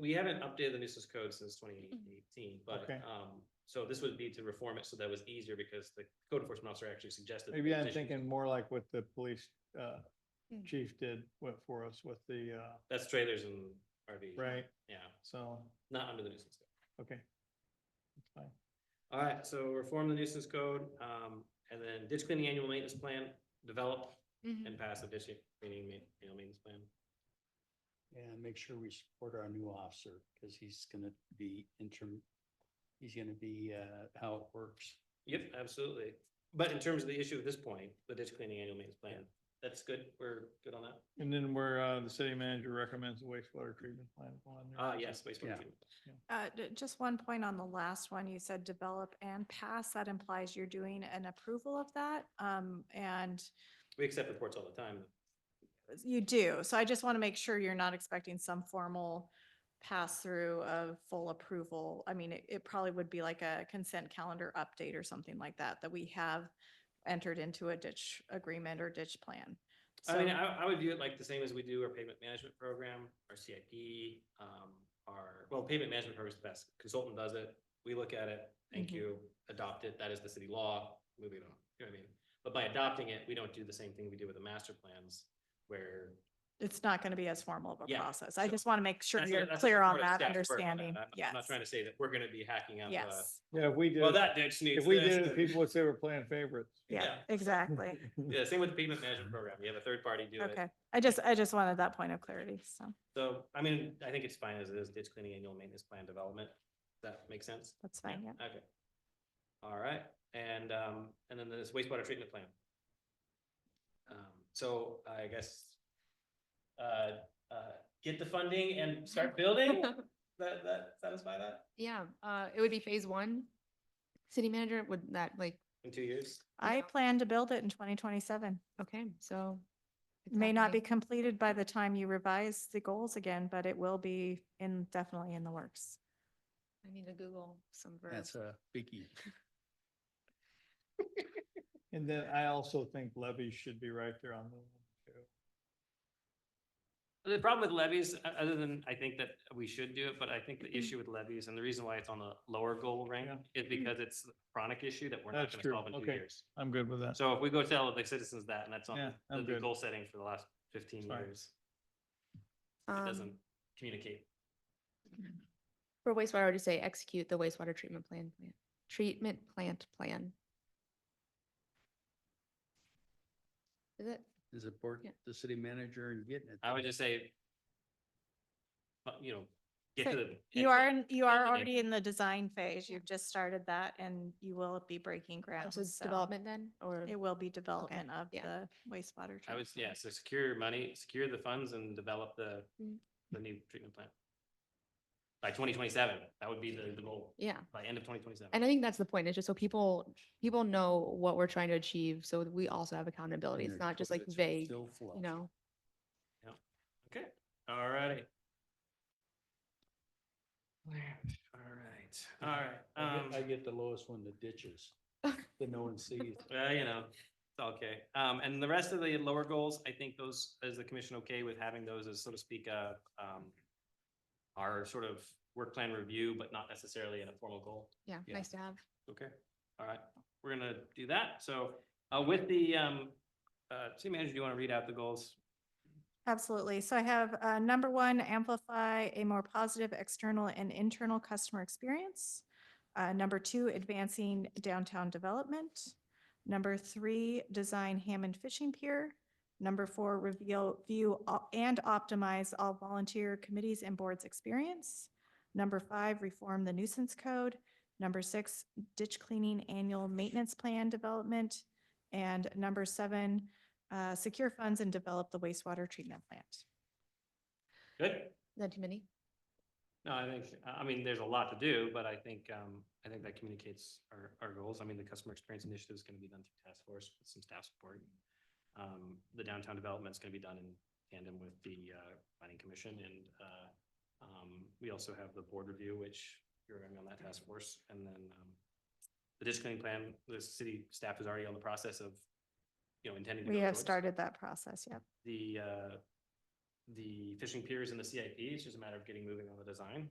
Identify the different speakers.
Speaker 1: We haven't updated the nuisance code since twenty eighteen, but,
Speaker 2: Mm-hmm. Okay.
Speaker 1: um, so this would be to reform it so that was easier because the code enforcement officer actually suggested.
Speaker 2: Maybe I'm
Speaker 1: additions.
Speaker 2: thinking more like what the police uh,
Speaker 3: Mm.
Speaker 2: chief did what for us with the, uh,
Speaker 1: That's trailers and RVs.
Speaker 2: right?
Speaker 1: Yeah,
Speaker 2: So,
Speaker 1: not under the nuisance code.
Speaker 2: okay. That's fine.
Speaker 1: All right, so reform the nuisance code, um, and then ditch cleaning annual maintenance plan, develop
Speaker 3: Mhm.
Speaker 2: Mm-hmm.
Speaker 1: and pass a ditch cleaning ma- annual maintenance plan.
Speaker 4: And make sure we support our new officer, because he's gonna be interim, he's gonna be, uh, how it works.
Speaker 1: Yep, absolutely. But in terms of the issue at this point, the ditch cleaning annual maintenance plan, that's good. We're good on that.
Speaker 2: And then where uh, the city manager recommends the wastewater treatment plant on there.
Speaker 1: Ah, yes, wastewater
Speaker 4: Yeah.
Speaker 1: treatment.
Speaker 3: Uh, d- just one point on the last one, you said develop and pass, that implies you're doing an approval of that. Um, and
Speaker 1: We accept reports all the time.
Speaker 3: you do, so I just want to make sure you're not expecting some formal pass-through of full approval. I mean, it, it probably would be like a consent calendar update or something like that, that we have entered into a ditch agreement or ditch plan.
Speaker 1: I mean,
Speaker 3: So-
Speaker 1: I, I would view it like the same as we do our pavement management program, our CIP, um, our, well, pavement management program is the best. Consultant does it. We look at it. Thank
Speaker 3: Mhm.
Speaker 1: you. Adopt it. That is the city law. Moving on. You know what I mean? But by adopting it, we don't do the same thing we do with the master plans where.
Speaker 3: It's not going to be as formal of a
Speaker 1: Yeah,
Speaker 3: process. I
Speaker 1: so
Speaker 3: just want to make sure
Speaker 1: That's-
Speaker 3: you're
Speaker 1: that's
Speaker 3: clear on
Speaker 1: part of
Speaker 3: that
Speaker 1: staff's work.
Speaker 3: understanding.
Speaker 1: I'm- I'm not
Speaker 3: Yes,
Speaker 1: trying to uh, say that we're gonna be hacking up. a,
Speaker 3: yes,
Speaker 2: Yeah, if we did,
Speaker 1: Well, that ditch needs.
Speaker 2: if we
Speaker 1: this
Speaker 2: did it,
Speaker 1: and-
Speaker 2: people would say we're playing favorites.
Speaker 3: yeah,
Speaker 1: yeah.
Speaker 3: exactly.
Speaker 1: Yeah, same with the pavement management program. You have a third party do it.
Speaker 3: Okay, I just, I just wanted that point of clarity, so
Speaker 1: So, I mean, I think it's fine as it is, ditch cleaning annual maintenance plan development. Does that make sense?
Speaker 3: that's fine, yeah.
Speaker 1: Okay. All right, and, um, and then this wastewater treatment plan. Um, so I guess, uh, uh, get the funding and start building? That, that satisfy that
Speaker 5: Yeah, uh, it would be phase one. City manager, would that like,
Speaker 1: in two years?
Speaker 3: I
Speaker 5: Yeah.
Speaker 3: plan to build it in twenty twenty-seven.
Speaker 5: okay, so. it's
Speaker 3: May not be
Speaker 5: happening.
Speaker 3: completed by the time you revise the goals again, but it will be in, definitely in the works.
Speaker 5: I need to Google some verbs.
Speaker 4: That's a biggie.
Speaker 2: And then I also think levies should be right there on the. too.
Speaker 1: The problem with levies, o- other than I think that we should do it, but I think the issue with levies and the reason why it's on the lower goal rank
Speaker 2: Mm-hmm. Yeah.
Speaker 1: is because it's a chronic issue that we're not
Speaker 2: That's
Speaker 1: gonna
Speaker 2: true.
Speaker 1: solve in two
Speaker 2: Okay.
Speaker 1: years.
Speaker 2: I'm good with that.
Speaker 1: So if we go tell the citizens that, and that's
Speaker 2: Yeah,
Speaker 1: on the-
Speaker 2: I'm
Speaker 1: the
Speaker 2: good.
Speaker 1: goal setting for the last fifteen
Speaker 2: Fine.
Speaker 1: years, it doesn't
Speaker 5: Um,
Speaker 1: communicate.
Speaker 5: For wastewater, I would just say execute the wastewater treatment plan, plan- treatment plant plan. Is it?
Speaker 4: Is it board,
Speaker 5: Yeah.
Speaker 4: the city manager and getting it?
Speaker 1: I would just say, but, you know, get
Speaker 3: So
Speaker 1: to the.
Speaker 3: You are, in- you are
Speaker 1: Okay.
Speaker 3: already in the design phase.
Speaker 5: Yeah.
Speaker 3: You've just started that and you will be breaking ground.
Speaker 5: So it's
Speaker 3: so
Speaker 5: development then, or?
Speaker 3: It will be development of
Speaker 5: yeah.
Speaker 3: the wastewater.
Speaker 1: I was,
Speaker 3: treatment
Speaker 1: yeah,
Speaker 3: plant.
Speaker 1: so secure your money, secure the funds and develop the,
Speaker 5: Mm.
Speaker 1: the new treatment plan. By twenty twenty-seven, that would be the, the goal,
Speaker 5: Yeah,
Speaker 1: by end of twenty twenty-seven.
Speaker 5: and I think that's the point, it's just so people, people know what we're trying to achieve, so we also have accountability, it's not just like vague, you know?
Speaker 1: Okay, all righty. All right, all right. Um,
Speaker 4: I get the lowest one, the ditches, that no one sees.
Speaker 1: Well, Uh, you know, it's okay. Um, and the rest of the lower goals, I think those, is the commission okay with having those as, so to speak, uh, um, our sort of work plan review, but not necessarily in a formal goal?
Speaker 5: Yeah,
Speaker 4: Yeah.
Speaker 5: nice to have.
Speaker 1: Okay, all right, we're gonna do that. So, uh, with the, um, uh, city manager, do you want to read out the goals?
Speaker 3: Absolutely. So I have, uh, number one, amplify a more positive external and internal customer experience. Uh, number two, advancing downtown development. Number three, design Hammond Fishing Pier. Number four, reveal, view o- and optimize all volunteer committees and boards experience. Number five, reform the nuisance code. Number six, ditch cleaning annual maintenance plan development. And number seven, uh, secure funds and develop the wastewater treatment plant.
Speaker 1: Good?
Speaker 5: Is that too many?
Speaker 1: No, I think, I I mean, there's a lot to do, but I think, um, I think that communicates our, our goals. I mean, the customer experience initiative is gonna be done through task force with some staff support. Um, the downtown development is gonna be done in tandem with the, uh, planning commission and, uh, um, we also have the board review, which you're gonna be on that task force. And then, um, the ditch cleaning plan, the city staff is already on the process of, you know, intending to.
Speaker 3: We
Speaker 1: go
Speaker 3: have
Speaker 1: towards.
Speaker 3: started that process, yep.
Speaker 1: The, uh, the fishing piers and the CIP. It's just a matter of getting moving on the design.